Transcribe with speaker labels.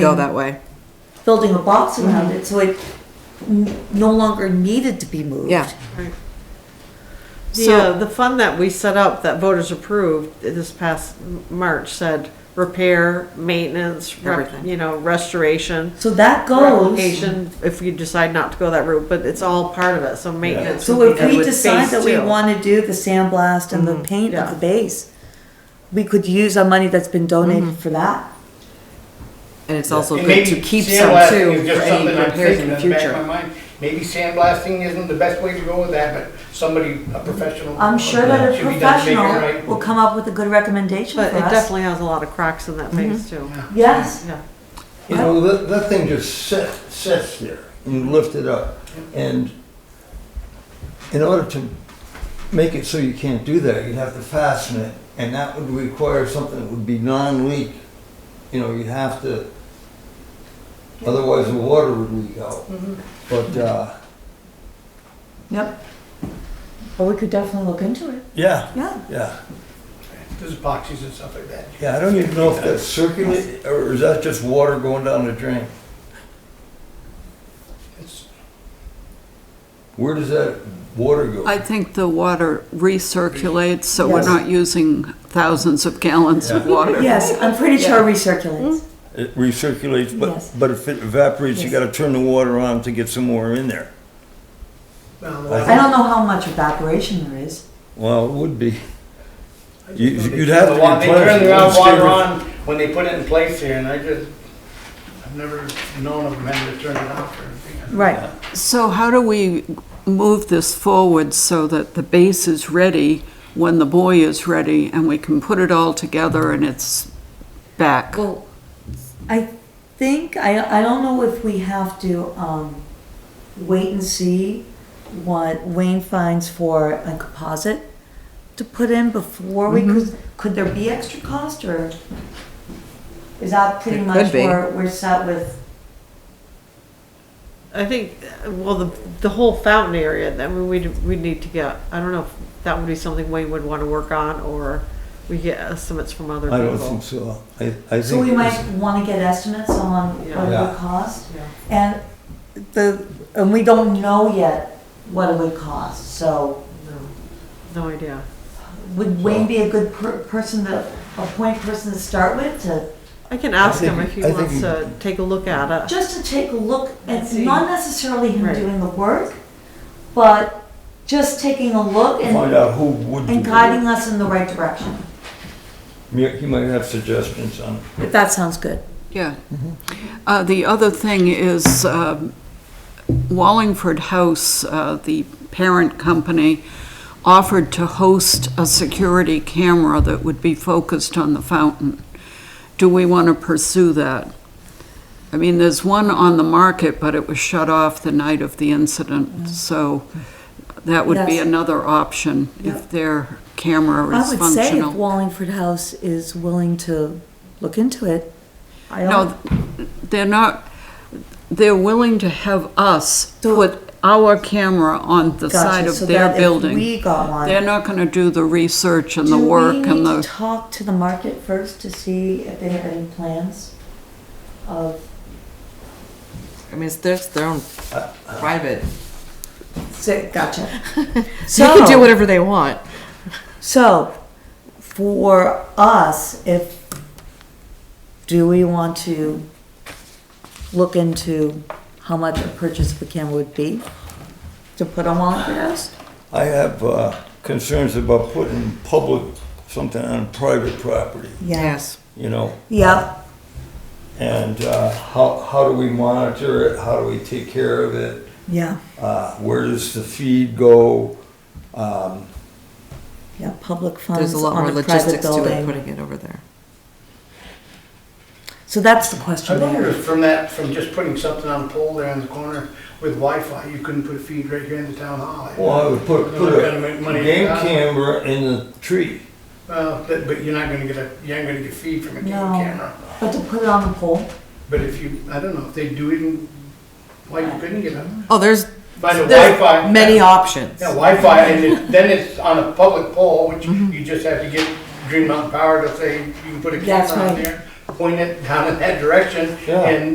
Speaker 1: go that way.
Speaker 2: building a box
Speaker 3: Mm-hmm.
Speaker 2: around it, so it n- no longer needed to be moved.
Speaker 1: Yeah.
Speaker 4: Yeah, the fund that we set up that voters approved this past March said repair, maintenance, rep-
Speaker 1: Everything.
Speaker 4: you know, restoration.
Speaker 2: So that goes,
Speaker 4: Replication, if you decide not to go that route, but it's all part of it, so maintenance.
Speaker 2: so
Speaker 4: would be
Speaker 2: if we
Speaker 4: good.
Speaker 2: decide
Speaker 4: Phase
Speaker 2: that we
Speaker 4: two.
Speaker 2: wanna do the sandblast and the
Speaker 3: Mm-hmm.
Speaker 2: paint of
Speaker 4: Yeah.
Speaker 2: the base, we could use our money that's been
Speaker 3: Mm-hmm.
Speaker 2: donated for that.
Speaker 1: And it's also
Speaker 3: And
Speaker 1: good
Speaker 3: maybe
Speaker 1: to keep some
Speaker 3: sandblasting
Speaker 1: too
Speaker 3: is
Speaker 1: for
Speaker 3: just
Speaker 1: any
Speaker 3: something I'm
Speaker 1: repairs in
Speaker 3: thinking
Speaker 1: the
Speaker 3: in back of
Speaker 1: future.
Speaker 3: my mind. Maybe sandblasting isn't the best way to go with that, but somebody, a professional.
Speaker 2: I'm sure that a
Speaker 3: should be done to make it
Speaker 2: professional
Speaker 3: right.
Speaker 2: will come up with a good recommendation for
Speaker 4: But it
Speaker 2: us.
Speaker 4: definitely has a lot of cracks in that phase
Speaker 2: Mm-hmm.
Speaker 4: too.
Speaker 2: Yes,
Speaker 4: Yeah,
Speaker 5: You know, that, that thing just sits, sits there, you lift it up, and in order to make it so you can't do that, you'd have to fasten it, and that would require something that would be non-leak. You know, you'd have to, otherwise the water would leak out. But, uh,
Speaker 2: yep. But we could definitely look into it,
Speaker 5: yeah,
Speaker 2: yeah.
Speaker 5: yeah,
Speaker 3: There's epoxies and stuff like that.
Speaker 5: yeah, I don't even know if that's circulate, or is that just water going down the drain?
Speaker 3: It's-
Speaker 5: Where does that water go?
Speaker 6: I think the water recirculates, so we're
Speaker 2: Yes.
Speaker 6: not using thousands of gallons of water.
Speaker 2: Yes, I'm pretty sure recirculates.
Speaker 5: It recirculates,
Speaker 2: Yes.
Speaker 5: but, but if it evaporates, you
Speaker 2: Yes.
Speaker 5: gotta turn the water on to get some more in there.
Speaker 3: well,
Speaker 5: I
Speaker 2: I don't know how much evaporation there is.
Speaker 5: Well, it would be. You,
Speaker 3: they
Speaker 5: you'd
Speaker 3: turn
Speaker 5: have
Speaker 3: the
Speaker 5: to
Speaker 3: wa- They
Speaker 5: replace.
Speaker 3: turn
Speaker 5: it
Speaker 3: the
Speaker 5: once
Speaker 3: ground water
Speaker 5: every-
Speaker 3: on when they put it in place here, and I just, I've never known of them having to turn it off or anything.
Speaker 2: Right.
Speaker 6: So how do we move this forward so that the base is ready when the boy is ready and we can put it all together and it's back?
Speaker 2: Well, I think, I, I don't know if we have to, um, wait and see what Wayne finds for a composite to put in before we,
Speaker 5: Mm-hmm.
Speaker 2: could, could there be extra cost or? Is that pretty
Speaker 1: There
Speaker 2: much
Speaker 1: could be.
Speaker 2: where we're set with?
Speaker 4: I think, uh, well, the, the whole fountain area, that we, we'd, we'd need to get, I don't know if that would be something Wayne would wanna work on, or we get estimates from other
Speaker 5: I
Speaker 4: people.
Speaker 5: don't think so. I, I think.
Speaker 2: So we
Speaker 5: it's-
Speaker 2: might wanna get estimates on what it
Speaker 5: Yeah.
Speaker 2: would cost?
Speaker 4: Yeah.
Speaker 2: And the, and we don't know yet what it would cost, so
Speaker 4: No idea.
Speaker 2: would Wayne be a good per- person to, a point person to start with to?
Speaker 4: I can ask him
Speaker 5: think-
Speaker 4: if he
Speaker 5: I think
Speaker 4: wants
Speaker 5: he-
Speaker 4: to take a look at it.
Speaker 2: just to take a look at,
Speaker 4: See.
Speaker 2: not necessarily him
Speaker 4: Right.
Speaker 2: doing the work, but just taking a look
Speaker 5: Find
Speaker 2: and,
Speaker 5: out who would.
Speaker 2: and
Speaker 5: do it.
Speaker 2: guiding us in the right direction.
Speaker 5: Yeah, He might have suggestions on it.
Speaker 2: If that sounds good.
Speaker 6: Yeah. Uh, The other thing is um, Wallingford House, uh, the parent company, offered to host a security camera that would be focused on the fountain. Do we want to pursue that? I mean, there's one on the market, but it was shut off the night of the incident, so that would be
Speaker 2: Mm-hmm. Yes.
Speaker 6: another option if their camera
Speaker 2: I
Speaker 6: is
Speaker 2: would say if
Speaker 6: functional.
Speaker 2: Wallingford House is willing to look into it, I
Speaker 6: No,
Speaker 2: don't,
Speaker 6: they're not, they're willing to have us put our camera on the side
Speaker 2: gotcha,
Speaker 6: of
Speaker 2: so
Speaker 6: their
Speaker 2: that if
Speaker 6: building.
Speaker 2: we got one.
Speaker 6: They're not gonna do the research and the work
Speaker 2: Do we
Speaker 6: and
Speaker 2: need to
Speaker 6: the,
Speaker 2: talk to the market first to see if they have any plans of,
Speaker 1: I mean, it's their, their own private.
Speaker 2: gotcha.
Speaker 1: So you can do whatever they want.
Speaker 2: So, for us, if, do we want to look into how much a purchase of a camera would be to put on Wallingford House?
Speaker 5: I have, uh, concerns about putting public, something on private property,
Speaker 1: Yes.
Speaker 5: you know?
Speaker 2: Yep,
Speaker 5: And, uh, how, how do we monitor it? How do we take care of it?
Speaker 2: yeah,
Speaker 5: Uh, where does the feed go? Um,
Speaker 2: yeah, public
Speaker 1: There's
Speaker 2: funds
Speaker 1: a lot more
Speaker 2: on a private
Speaker 1: logistics to it,
Speaker 2: building.
Speaker 1: putting it over there.
Speaker 2: So that's the
Speaker 3: I
Speaker 2: question
Speaker 3: wonder
Speaker 2: there.
Speaker 3: if from that, from just putting something on a pole there in the corner with Wi-Fi, you couldn't put a feed right here in the town hall.
Speaker 5: Well, I would put,
Speaker 3: They're
Speaker 5: put
Speaker 3: not gonna
Speaker 5: a
Speaker 3: make money
Speaker 5: game
Speaker 3: out of it.
Speaker 5: camera in the tree.
Speaker 3: Well, but, but you're not gonna get a, you ain't gonna get feed from a game
Speaker 2: No.
Speaker 3: camera.
Speaker 2: But to put it on the pole,
Speaker 3: But if you, I don't know, if they do even, why you couldn't get them?
Speaker 1: Oh, there's,
Speaker 3: By the
Speaker 1: there's
Speaker 3: Wi-Fi.
Speaker 1: many
Speaker 3: Yeah,
Speaker 1: options.
Speaker 3: Wi-Fi, and it- then it's on a public pole, which you just have to get Green Mountain Power to say you can put a
Speaker 2: That's
Speaker 3: camera on
Speaker 2: right.
Speaker 3: there.
Speaker 5: point it down in that direction
Speaker 3: Yeah.
Speaker 5: and